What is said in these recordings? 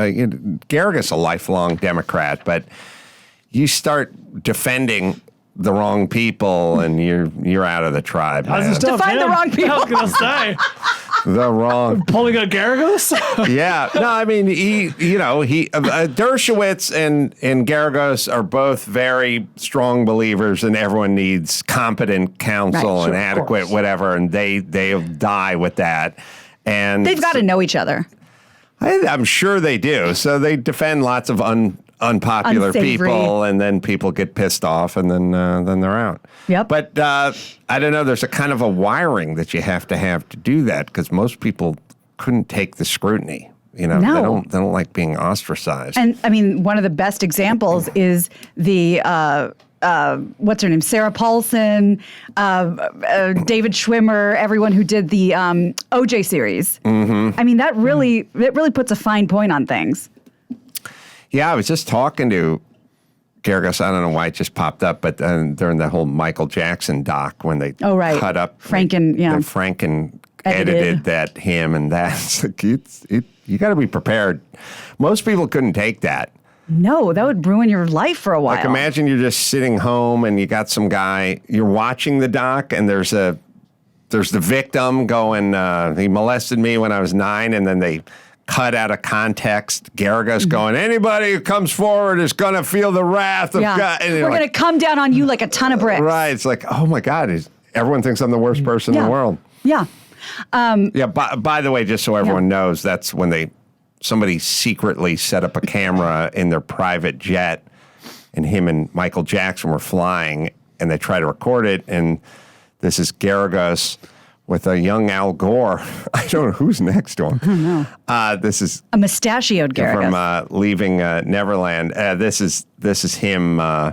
uh, you know, Garrigus a lifelong Democrat, but you start defending the wrong people, and you're you're out of the tribe. How's man. this stuff? Define the him? wrong people. I was gonna say the wrong pulling a Garagos. yeah. No, I mean he, you know, he uh, uh, Dershowitz and and Garagos are both very strong believers, and everyone needs competent counsel Right, and sure, of adequate course. whatever, and they they die with that. And They've got to know each other. I, I'm sure they do. So they defend lots of un, unpopular Unsavory. people, and then people get pissed off, and then uh, then they're out. Yep. But uh, I don't know. There's a kind of a wiring that you have to have to do that because most people couldn't take the scrutiny. You know, they No. don't they don't like being ostracized. And I mean, one of the best examples is the. Uh, uh, what's her name? Sarah Paulson, uh, uh, David Schwimmer, everyone who did the um, OJ series. Mm-hmm. I mean, that really, it really puts a fine point on things. Yeah, I was just talking to Garagos. I don't know why it just popped up, but uh, during the whole Michael Jackson doc when they Oh, right. cut up Franken- yeah. and Franken Edited. edited. that him and that. It's like, it's, it, you got to be prepared. Most people couldn't take that. No, that would ruin your life for a while. Like imagine you're just sitting home and you got some guy you're watching the doc and there's a there's the victim going uh, he molested me when I was nine and then they cut out of context Garagos Mm-hmm. going anybody who comes forward is gonna feel the wrath of yeah. God and you're We're like, going to come down on you like a ton of bricks. right it's like oh my God is everyone thinks I'm the worst person in Mm-hmm. Yeah. the world Yeah. yeah by, by the way just so everyone knows that's when they somebody secretly set up a camera in their private jet and him and Michael Jackson were flying, and they try to record it. And this is Garagos with a young Al Gore. I don't know who's next to him. Uh, this is A mustachioed Garrett. from uh, leaving uh, Neverland. Uh, this is this is him uh,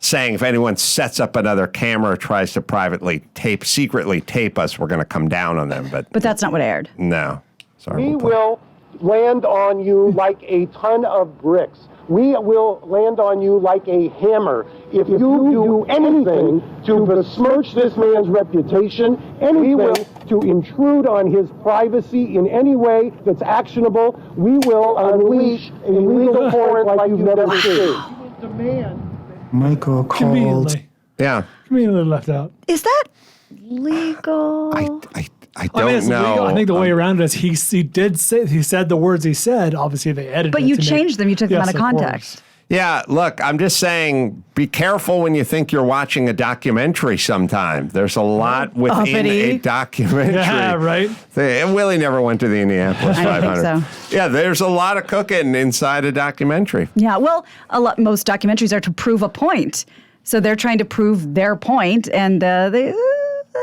saying, if anyone sets up another camera, or tries to privately tape, secretly tape us, we're going to come down on them. But but that's not what aired. no, sorry. We we'll play- will land on you like a ton of bricks. We will land on you like a hammer. If you do anything to besmirch this man's reputation, we will to intrude on his privacy in any way that's actionable, we will unleash a legal torrent like you've never seen. Michael called. Conveniently, Yeah, conveniently left out. Is that legal? I, I, I don't I mean, it's know. legal. I think the way Um, around it is he he did say he said the words he said. Obviously, they edited. but it you to make- changed them. You took them Yes, out of course. context. Yeah, look, I'm just saying be careful when you think you're watching a documentary sometime. There's a lot Oh, within Uppity. a documentary. Yeah, right. They- and Willie never went to the Indianapolis I don't 500. think Yeah, there's a lot of cooking inside a documentary. Yeah. Well, a lot, most documentaries are to prove a point. So they're trying to prove their point and uh, they uh,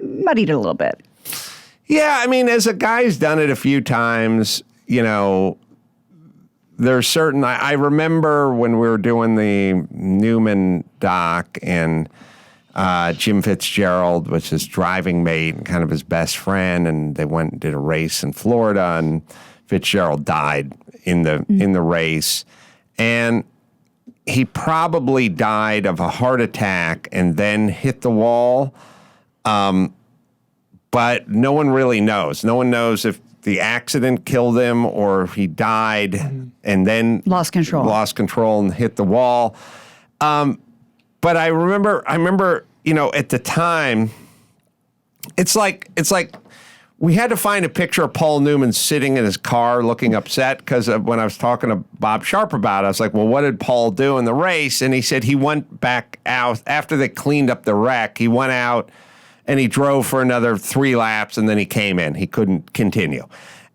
muddied it a little bit. Yeah, I mean, as a guy's done it a few times, you know, there's certain. I, I remember when we were doing the Newman doc and uh, Jim Fitzgerald was his driving mate and kind of his best friend, and they went and did a race in Florida, and Fitzgerald died in the in the race, and he probably died of a heart attack and then hit the wall Um, but no one really knows. No one knows if the accident killed him or if he died and then Lost control. lost control and hit the wall. Um, but I remember, I remember, you know, at the time, it's like it's like we had to find a picture of Paul Newman sitting in his car looking upset because when I was talking to Bob Sharp about it, I was like, well, what did Paul do in the race? And he said he went back out after they cleaned up the wreck. He went out and he drove for another three laps and then he came in. He couldn't continue.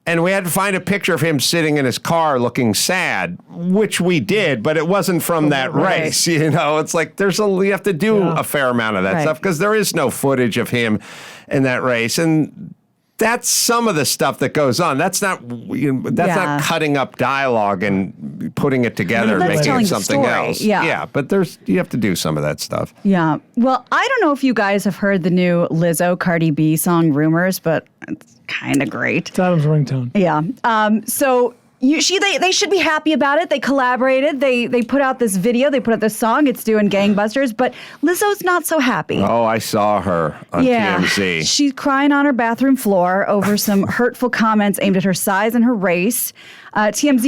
And we had to find a picture of him sitting in his car looking sad, which we did, but it wasn't from that Right. race. You know, it's like there's a, you have to do Yeah. a fair amount of that Right. stuff because there is no footage of him in that race and that's some of the stuff that goes on that's not you know, that's Yeah. not cutting up dialogue and putting it together and That's making telling it the something story, else yeah. yeah but there's you have to do some of that stuff Yeah. Well, I don't know if you guys have heard the new Lizzo Cardi B song Rumors, but it's kind of great. It's Adam's ringtone. Yeah. Um, so you, she, they, they should be happy about it. They collaborated. They, they put out this video. They put out this song. It's doing gangbusters. But Lizzo's not so happy. oh i saw her on yeah, tmz she's crying on her bathroom floor over some hurtful comments aimed at her size and her race. Uh, TMZ